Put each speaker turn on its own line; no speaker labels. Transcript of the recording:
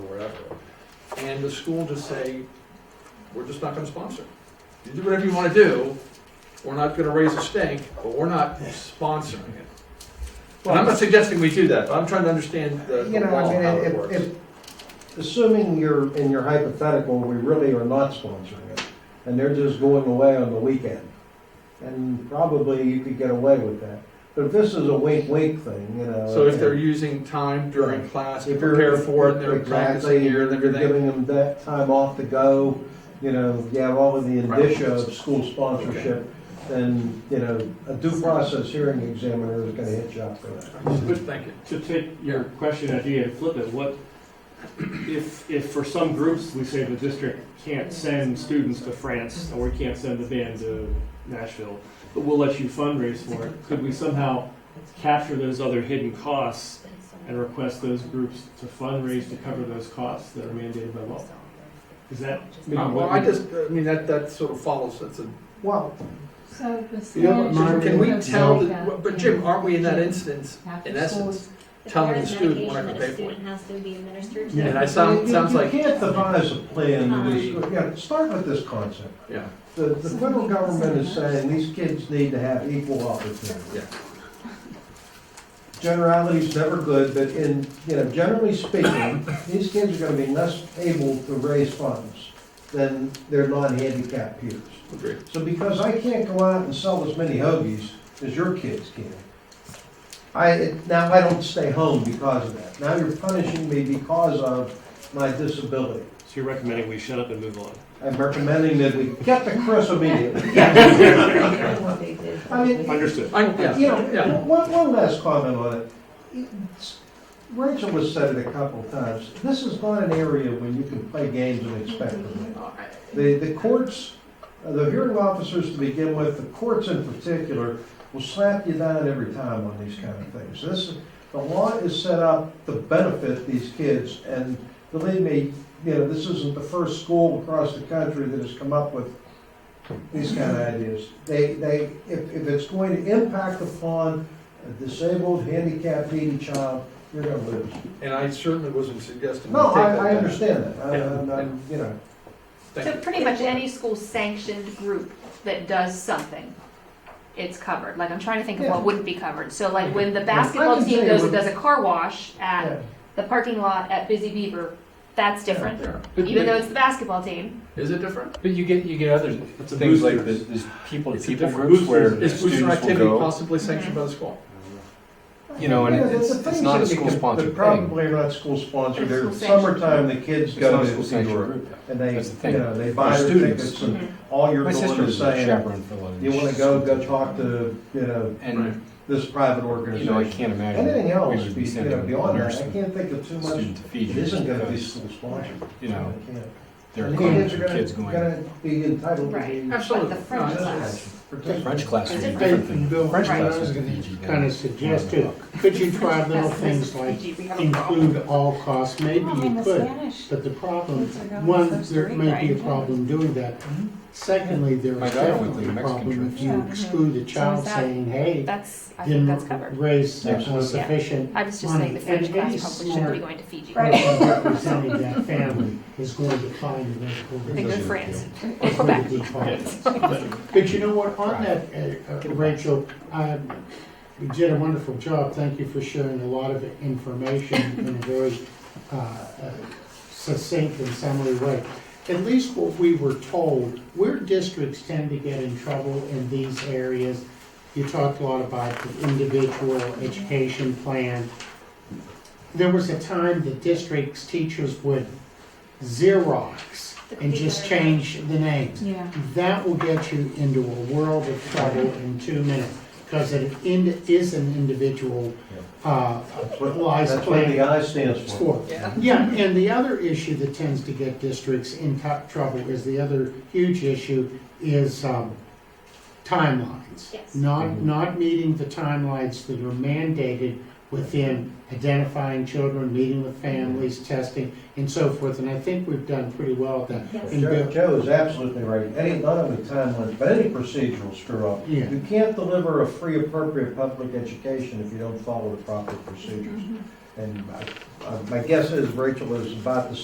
and the school just say, we're just not gonna sponsor. You do whatever you wanna do, we're not gonna raise a stink, but we're not sponsoring it. And I'm not suggesting we do that, but I'm trying to understand the
You
the
know, I
law,
mean,
how it
if,
works.
if, assuming you're, in your hypothetical, we really are not sponsoring it, and they're just going away on the weekend, and probably you could get away with that. But if this is a wink-wink thing, you know.
So if
and-
they're using time during class to
if you're-
prepare for it, and they're practicing
Exactly,
here and
you're
everything.
Giving them that time off to go, you know, you have all of the
Right.
indicia of school sponsorship, then, you know, a due process hearing examiner is gonna hit you up for that.
Thank you.
To take your question idea and flip it, what, if, if for some groups, we say the district can't send students to France, or we can't send the band to Nashville, but we'll let you fundraise for it, could we somehow capture those other hidden costs and request those groups to fundraise to cover those costs that are mandated by law? Is that maybe
Uh,
what?
Well, I
we-
just, I mean, that, that sort of follows, that's a
Well,
So the
You know,
standard.
Jim, can we
of
tell,
Jamaica
the- but Jim, aren't we in that instance,
after
in
school
essence,
is-
telling the
There's
student what I
medication that
can pay
a
for?
Student has to be administered. to.
Yeah, and I sound,
you-
sounds
you
like,
can't devise a plan, to these- yeah, start with this concept.
yeah,
The, the federal government is saying these kids need to have equal opportunity.
Yeah.
Generality's never good, but in, you know, generally speaking, these kids are gonna be less able to raise funds than their non-handicapped peers.
agree.
So because I can't go out and sell as many hoagies as your kids can, I, now I don't stay home because of that. Now you're punishing me because of my disability.
So you're recommending we shut up and move on?
I'm recommending that we get to Chris immediately. I mean,
Understood.
I,
You
yeah, yeah.
know, one, one last comment on it. It's- Rachel has said it a couple of times, this is not an area where you can play games and expect to win. The, the courts, uh, the hearing officers to begin with, the courts in particular, will slap you down every time on these kind of things. This, the law is set up to benefit these kids, and believe me, you know, this isn't the first school across the country that has come up with these kind of ideas. They, they, if, if it's going to impact upon a disabled, handicapped, needy child, you're gonna lose.
And I certainly wasn't suggesting. we
No,
take
I, I
that.
understand that, I,
Yeah.
I'm- I'm, you know.
Thank
So
you.
pretty much any school sanctioned group that does something, it's covered. Like, I'm trying to think of
Yeah.
what wouldn't be covered. So like when the
I
basketball
can tell
team
you
goes
what-
and does a car wash
yeah.
at the parking lot at Busy Beaver, that's different.
Yeah.
Even though it's the basketball team,
Is it different?
But you get, you get other
It's a
things like
boosters.
this, this people,
It's a
people
different
groups where
boosters.
Is booster
students will
activity
go.
possibly sanctioned by the school?
You know, and
Yeah, the-
it's-
the
it's
things
not a
that you can-
school-sponsored
they're
thing.
Probably not school sponsored,
It's
they're
school-sanctioned.
summertime, the kids
It's not
go
a school
to New
sanctioned
York.
group. though.
And they,
That's the thing.
you know, they buy
Our
their
students-
tickets
Hmm.
and all you're
My
doing
sister
is
was a
saying,
chaperone for a lot of.
you wanna go, go talk to, you know,
Right.
And,
this private
you know, I
organization.
can't imagine.
Anything
we
else,
would
be- you
sending
know,
a
beyond that,
nurse
I
and
can't think of too much,
Student to feed
it
you
isn't gonna be
because,
school sponsored.
you know,
I can't.
there are
And
kids
kids are gonna,
going.
gonna be entitled to
Right.
be.
like the
Absolutely.
French
No,
class.
participants.
French class would be
Right.
different than,
Bill,
French
I
class
was
would be
gonna
PG.
kind of suggest it, could you try little things like include all costs, maybe
Well, in the
you could,
Spanish,
but the problem,
Kids are going to
one,
Costa
there might be a
Rica.
problem doing that. Secondly, there
Hmm? My
is
daughter went
definitely
to
a
Mexican
problem
trips.
if
Yeah,
you
mhm.
exclude a child
that-
saying, hey,
that's, I think that's
didn't r-
covered.
raise uh,
Absolutely.
sufficient
I was just saying the French
And
class probably
any
shouldn't
smart-
be going to Fiji.
Right.
person representing that family is going to find another
They go to
organization.
France or
It's
Quebec.
gonna be hard. But you know what, on that, uh, uh, Rachel, um, you did a wonderful job, thank you for sharing a lot of information in a very uh, uh, succinct and summary way. At least what we were told, where districts tend to get in trouble in these areas, you talked a lot about the individual education plan. There was a time the district's teachers would Xerox and just change the names
yeah.
that will get you into a world of trouble in two minutes, because it in- is an individual, uh,
That's what-
lies
that's what the
plan
I stands for.
for. Yeah, and the other issue that tends to get districts in tou- trouble is the other huge issue is, um, timelines.
Yes.
Mm-hmm.
Not, not meeting the timelines that are mandated within identifying children, meeting with families,
Mm-hmm.
testing, and so forth, and I think we've done pretty well at that.
Yes.
And
Joe,
Bill-
Joe is absolutely right. Any, not only timelines, but any procedural screw up.
Yeah.
You can't deliver a free appropriate public education if you don't follow the proper procedures. And I- I- my guess is Rachel is about the